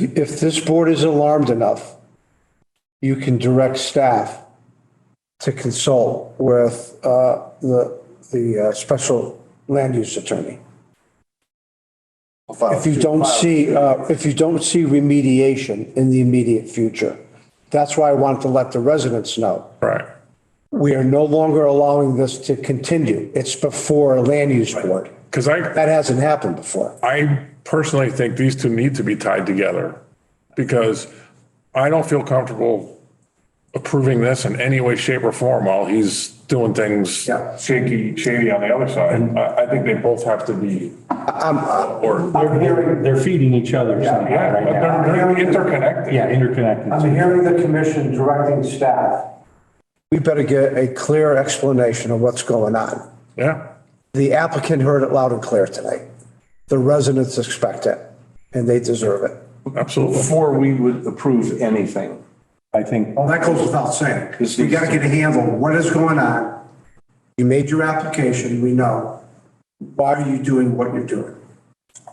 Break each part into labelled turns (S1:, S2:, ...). S1: If this board is alarmed enough, you can direct staff to consult with uh, the, the uh, special land use attorney. If you don't see, uh, if you don't see remediation in the immediate future, that's why I want to let the residents know.
S2: Right.
S1: We are no longer allowing this to continue. It's before a land use board.
S2: Because I,
S1: That hasn't happened before.
S2: I personally think these two need to be tied together because I don't feel comfortable approving this in any way, shape or form while he's doing things
S1: Yeah.
S2: shaky, shady on the other side. I, I think they both have to be. Or,
S3: They're, they're- they're feeding each other somehow
S2: yeah,
S3: right now.
S2: they're, they're interconnected.
S3: Yeah, interconnected.
S1: I'm hearing the commission directing staff. We better get a clear explanation of what's going on.
S2: Yeah.
S1: The applicant heard it loud and clear tonight. The residents expect it, and they deserve it.
S2: absolutely.
S4: Before we would approve anything, I think.
S1: Well, that goes without saying.
S4: This
S1: We
S4: needs-
S1: gotta get a handle on what is going on. You made your application, we know. Why are you doing what you're doing?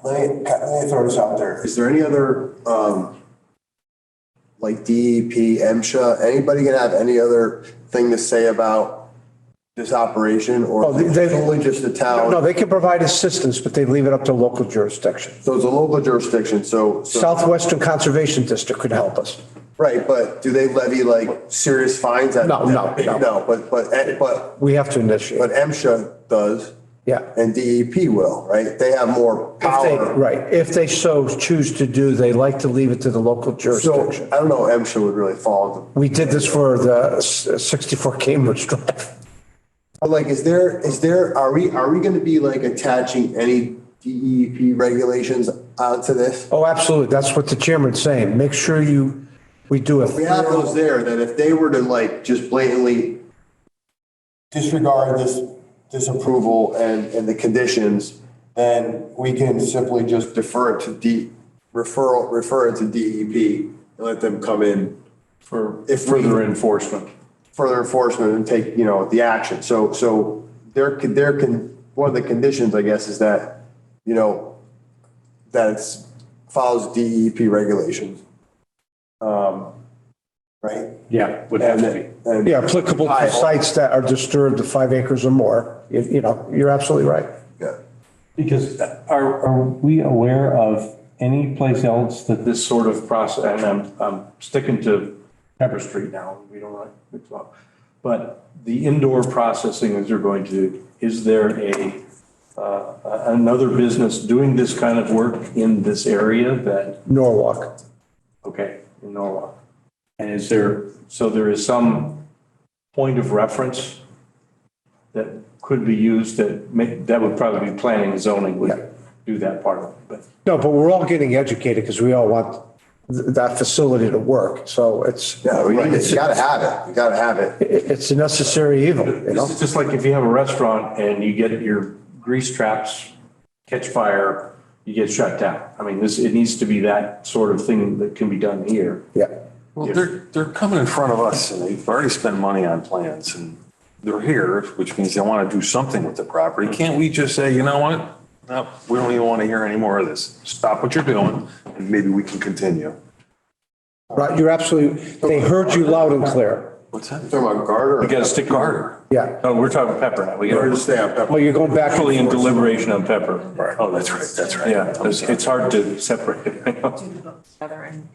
S5: Let me, let me throw this out there. Is there any other, um, like E DEP, MSHA, anybody gonna have any other thing to say about this operation or
S1: Oh, they- they-
S5: only just the town?
S1: No, they can provide assistance, but they leave it up to local jurisdiction.
S5: So it's a local jurisdiction, so, so-
S1: Southwestern Conservation District could help us.
S5: right, but do they levy like serious fines? at-
S1: No, no, no.
S5: No, but, but, eh, but,
S1: We have to initiate.
S5: but MSHA does.
S1: Yeah.
S5: And DEP will, right? They have more
S1: If they-
S5: power.
S1: Right, if they so choose to do, they like to leave it to the local
S5: So
S1: jurisdiction.
S5: I don't know, MSHA would really fall into
S1: We did this for the s- 64 Cambridge Drive.
S5: But like, is there, is there, are we, are we gonna be like attaching any DEP regulations onto this?
S1: Oh, absolutely, that's what the chairman's saying. Make sure you, we do a
S5: We have those there that if they were to like just blatantly disregard this, this approval and, and the conditions, then we can simply just defer it to D, referral, refer it to DEP and let them come in
S4: For
S5: If we-
S4: further enforcement.
S5: further enforcement and take, you know, the action. So, so there could, there can, one of the conditions, I guess, is that, you know, that it's follows DEP regulations. Um, Right?
S4: Yeah, would have
S5: And
S4: to be.
S5: then- and-
S1: Yeah, applicable to sites that are disturbed to five acres or more. You- You know, you're absolutely right.
S5: Yeah.
S3: Because are, are we aware of any place else that this,
S4: This sort of process, and I'm, I'm sticking to Pepper Street now, we don't want to mix up. But the indoor processing that they're going to, do, is there a, uh, another business doing this kind of work in this area that
S1: Norwalk.
S4: Okay, in Norwalk. And is there, so there is some point of reference that could be used that may, that would probably be planning and zoning
S1: Yeah.
S4: would do that part of it, but
S1: No, but we're all getting educated because we all want th- that facility to work. So it's,
S5: Yeah, we need it.
S1: it's,
S5: you gotta have it, you gotta have it.
S1: it's a necessary evil, you know?
S4: it's just like if you have a restaurant and you get your grease traps catch fire, you get shut down. I mean, this, it needs to be that sort of thing that can be done here.
S1: Yeah.
S6: Well, they're, they're coming in front of us and they've already spent money on plans and they're here, which means they want to do something with the property. Can't we just say, you know what? No, we don't even want to hear any more of this. Stop what you're doing and maybe we can continue.
S1: Right, you're absolutely, they heard you loud and clear.
S6: What's that?
S5: Talking about garter.
S4: We got to stick harder.
S1: Yeah.
S4: No, we're talking pepper now. We got
S5: Or
S4: to
S5: just stay on
S1: Well,
S5: pepper.
S1: you're going back. and
S4: actually in
S1: forth.
S4: deliberation on pepper.
S6: Oh, that's right, that's right.
S4: Yeah, it's, it's hard to separate it.
S7: do the books together and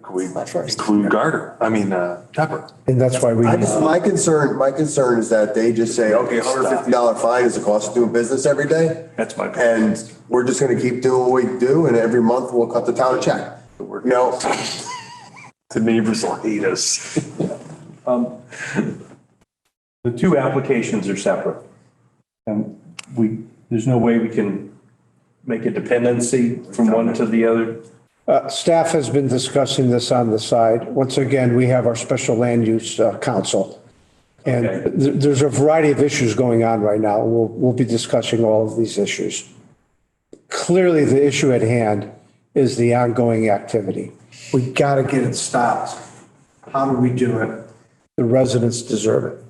S6: Could we include garter? I mean, uh, pepper.
S1: And that's why we,
S5: I just, my concern, my concern is that they just say, okay, hundred fifty dollar fine is the cost of doing business every day.
S4: That's my concern.
S5: And we're just gonna keep doing what we do and every month we'll cut the town a check. You know,
S6: The neighbors will hate us.
S4: Um, The two applications are separate. And we, there's no way we can make a dependency from one to the other.
S1: uh, staff has been discussing this on the side. Once again, we have our special land use uh, council. And
S4: Okay.
S1: th- there's a variety of issues going on right now. We'll, we'll be discussing all of these issues. Clearly, the issue at hand is the ongoing activity. We got to get it stopped. How do we do it? The residents deserve it.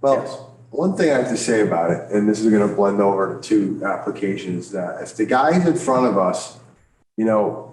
S5: Well, one thing I have to say about uh, it, and this is gonna blend over to two applications, that if the guys in front of us, you know,